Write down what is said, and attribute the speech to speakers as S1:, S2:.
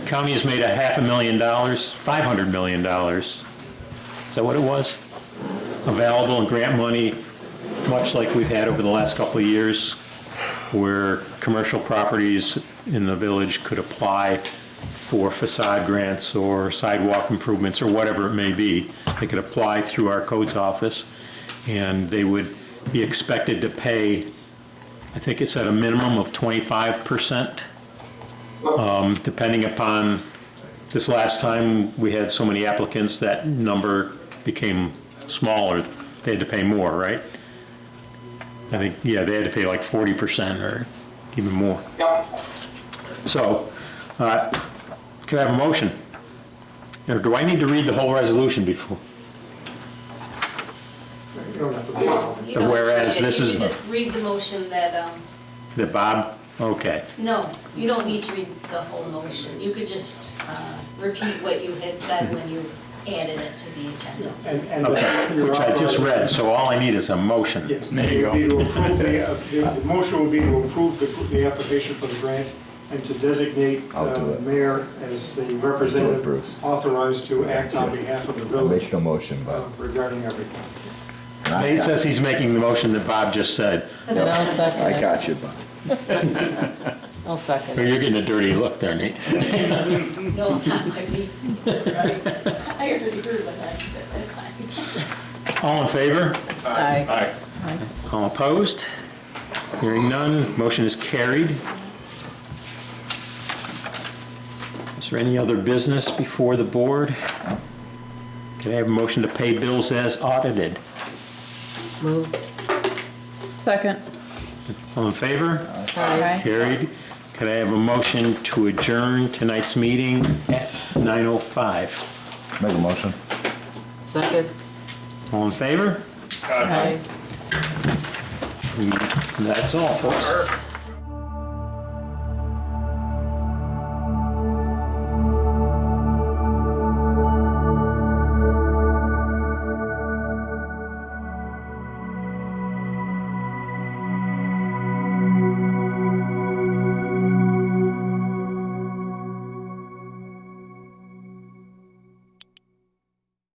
S1: county has made a half a million dollars, five hundred million dollars. Is that what it was? Available in grant money, much like we've had over the last couple of years, where commercial properties in the village could apply for facade grants or sidewalk improvements or whatever it may be. They could apply through our codes office, and they would be expected to pay, I think it's at a minimum of twenty-five percent depending upon, this last time, we had so many applicants, that number became smaller. They had to pay more, right? I think, yeah, they had to pay like 40% or even more.
S2: Yep.
S1: So, uh, could I have a motion? Or do I need to read the whole resolution before?
S3: You don't have to do it all.
S4: You
S1: The
S4: don't
S1: whereas
S4: need it.
S1: this
S4: You
S1: is-
S4: just read the motion that, um,
S1: The Bob? Okay,
S4: no, you don't need to read the whole motion. You could just uh, repeat what you had said when you added it to the agenda.
S3: And, and.
S1: okay,
S3: you're
S1: which I just
S3: authorized-
S1: read, so all I need is a motion.
S3: Yes.
S5: There you
S3: It would be
S5: go.
S3: to approve the, uh, the- the motion would be to approve the, the application for the grant and to designate
S6: I'll do
S3: uh,
S6: it.
S3: mayor as the representative
S6: Bruce.
S3: authorized to act on behalf of the village
S6: Original motion,
S3: uh,
S6: Bob.
S3: regarding everything.
S1: Nate says he's making the motion that Bob just said.
S7: And I'll second
S6: I
S7: it.
S6: got you, Bob.
S7: I'll second
S1: Oh,
S7: it.
S1: You're getting a dirty look there, Nate.
S4: No, not my me. Right. I already heard what I said, that's fine.
S1: All in favor?
S7: Aye.
S5: Aye.
S1: All opposed? Hearing none, motion is carried. Is there any other business before the board? Can I have a motion to pay bills as audited?
S7: Move.
S8: Second.
S1: All in favor?
S8: Aye.
S1: Carried. Can I have a motion to adjourn tonight's meeting at 9:05?
S6: Make a motion.
S7: Second.
S1: All in favor?
S7: Aye.
S1: That's all, folks.